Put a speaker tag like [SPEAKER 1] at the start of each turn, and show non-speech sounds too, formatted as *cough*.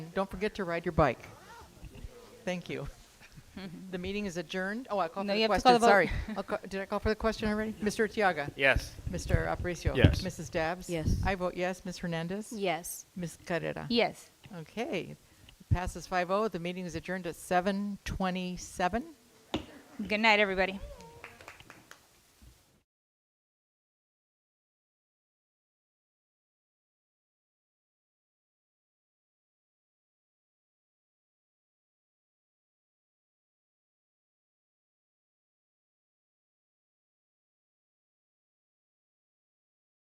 [SPEAKER 1] don't forget to ride your bike. Thank you. *laughs* The meeting is adjourned. Oh, I called
[SPEAKER 2] No,
[SPEAKER 1] for
[SPEAKER 2] you
[SPEAKER 1] the
[SPEAKER 2] have to call
[SPEAKER 1] question,
[SPEAKER 2] the vote.
[SPEAKER 1] sorry. I'll ca- Did I call for the question already? Mr. Tiaga?
[SPEAKER 3] Yes.
[SPEAKER 1] Mr. Aparicio?
[SPEAKER 3] Yes.
[SPEAKER 1] Mrs. Dabbs?
[SPEAKER 4] Yes.
[SPEAKER 1] I vote yes. Ms. Hernandez?
[SPEAKER 4] Yes.
[SPEAKER 1] Ms. Carrera?
[SPEAKER 2] Yes.
[SPEAKER 1] Okay, oh. passes 5-0. The meeting is adjourned at 7:27.
[SPEAKER 2] Good night, everybody.